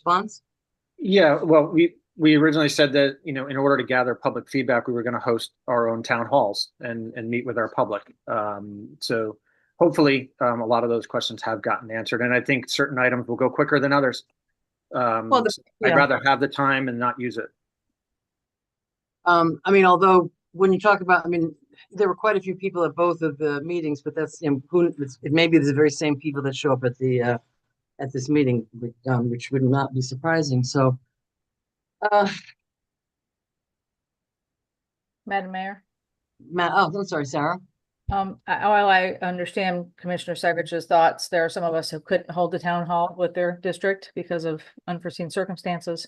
response? Yeah, well, we, we originally said that, you know, in order to gather public feedback, we were gonna host our own town halls and, and meet with our public. Um, so hopefully, um, a lot of those questions have gotten answered, and I think certain items will go quicker than others. Um, Well, the- I'd yeah. rather have the time and not use it. Um, I mean, although, when you talk about, I mean, there were quite a few people at both of the meetings, but that's, you know, who, it's- it may be the very same people that show up at the, uh, at this meeting, which, um, which would not be surprising, so. Uh, Madam Mayor, Matt, oh, I'm sorry, Sarah. um, I- while I understand Commissioner Segrich's thoughts, there are some of us who couldn't hold the town hall with their district because of unforeseen circumstances.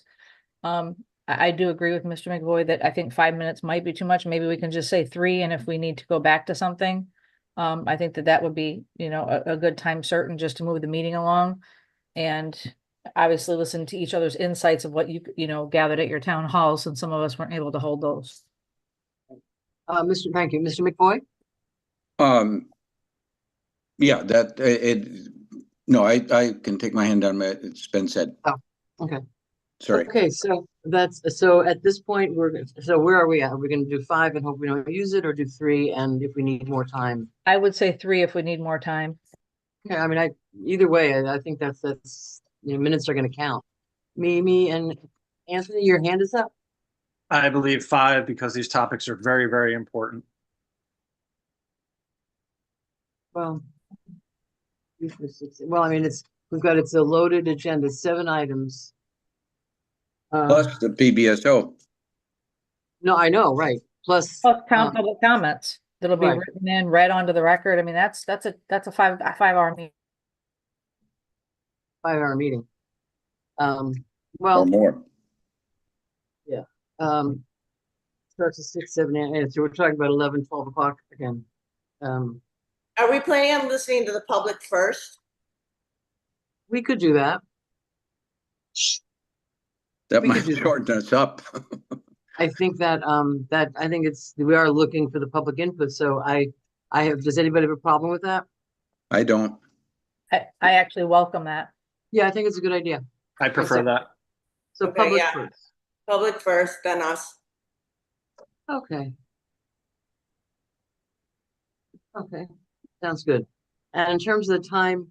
Um, I, I do agree with Mr. McVoy that I think five minutes might be too much. Maybe we can just say three, and if we need to go back to something, um, I think that that would be, you know, a, a good time certain just to move the meeting along. And obviously listen to each other's insights of what you, you know, gathered at your town halls, since some of us weren't able to hold those. Uh, Mr., thank you, Mr. McBoy? Um, yeah, that, i- it, no, I, I can take my hand down, my- it's been said. Oh, okay. Sorry, Okay, so that's, so at this point, we're, so where are we at? Are we gonna do five and hope we don't use it, or do three, and if we need more time? I would say three if we need more time. Okay, I mean, I, either way, I, I think that's, that's, you know, minutes are gonna count. Mimi and Anthony, your hand is up. I believe five, because these topics are very, very important. Well. three, four, six, Well, I mean, it's, we've got, it's a loaded agenda, seven items. Uh, plus the PBSO, no, I know, right, plus, Plus town Um, public comments that'll be right. written in, read onto the record. I mean, that's, that's a, that's a five, a five hour meeting. five hour meeting. Um, or well, more, um. Starts at six, seven, eight, eight, so we're talking about eleven, twelve o'clock again. Um, Are we planning on listening to the public first? we could do that. that we could might do that. shorten us up. I think that, um, that, I think it's, we are looking for the public input, so I, I have, does anybody have a problem with that? I don't, I, I actually welcome that. Yeah, I think it's a good idea. I prefer second. that. So Okay, public yeah. first. Public first, then us. Okay. Okay, sounds good. And in terms of the time,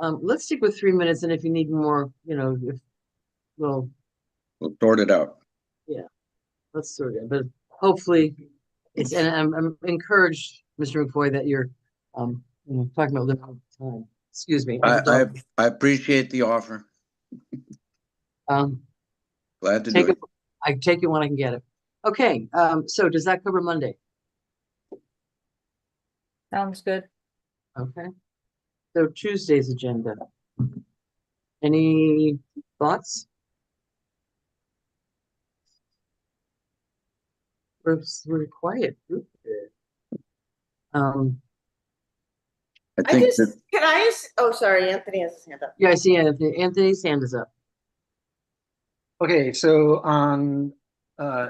um, let's stick with three minutes and if you need more, you know, if, well, we'll sort it out. let's sort it, but hopefully it's, and I'm, I'm encouraged, Mr. McFoy, that you're, um, you know, talking about limited time. Excuse me. I, I'm I, sorry. I appreciate the offer, Um, glad to do take it. it, I take it when I can get it. Okay, um, so does that cover Monday? Sounds good. Okay. So Tuesday's agenda. Any thoughts? We're, s- we're a quiet. group today. Um, I I think just, that, can I, just- oh, sorry, Anthony has his hand up. yeah, I see uh, Anthony, Anthony's hand is up. Okay, so on uh,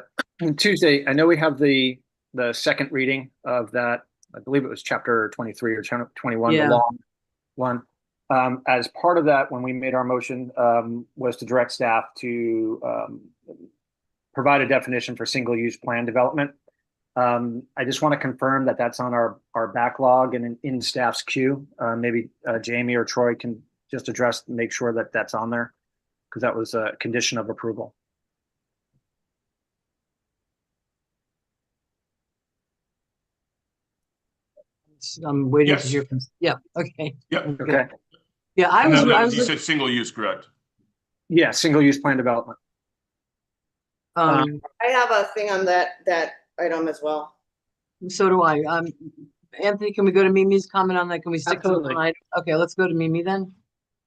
Tuesday, I know we have the, the second reading of that, I believe it was chapter 23 or chapter 21, the Yeah. long one. Um, As part of that, when we made our motion, um, was to direct staff to um, provide a definition for single-use plan development. Um, I just want to confirm that that's on our, our backlog and in- in staff's queue. Uh, Maybe uh, Jamie or Troy can just address, make sure that that's on there because that was a condition of approval. I'm waiting to Yes. hear from, yeah, okay. Yep. Okay, Yeah, I was, No, I no, was, you look- said single use, correct? yeah, single-use plan development. um, I have a thing on that, that item as well. so do I. Um, Anthony, can we go to Mimi's comment on that? Can we stick to the Absolutely. one item? Okay, let's go to Mimi then.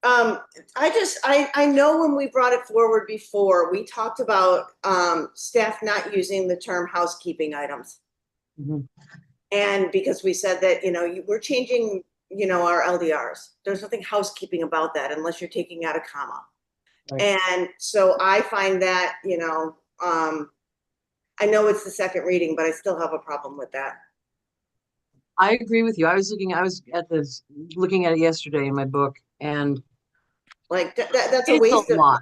Um, I just, I, I know when we brought it forward before, we talked about, um, staff not using the term housekeeping items. Mhm. And because we said that, you know, you, we're changing, you know, our LDRs. There's nothing housekeeping about that unless you're taking out a comma. Right. And so I find that, you know, um, I know it's the second reading, but I still have a problem with that. I agree with you. I was looking, I was at this, looking at it yesterday in my book and Like, that, that- that's a It's waste a of, lot.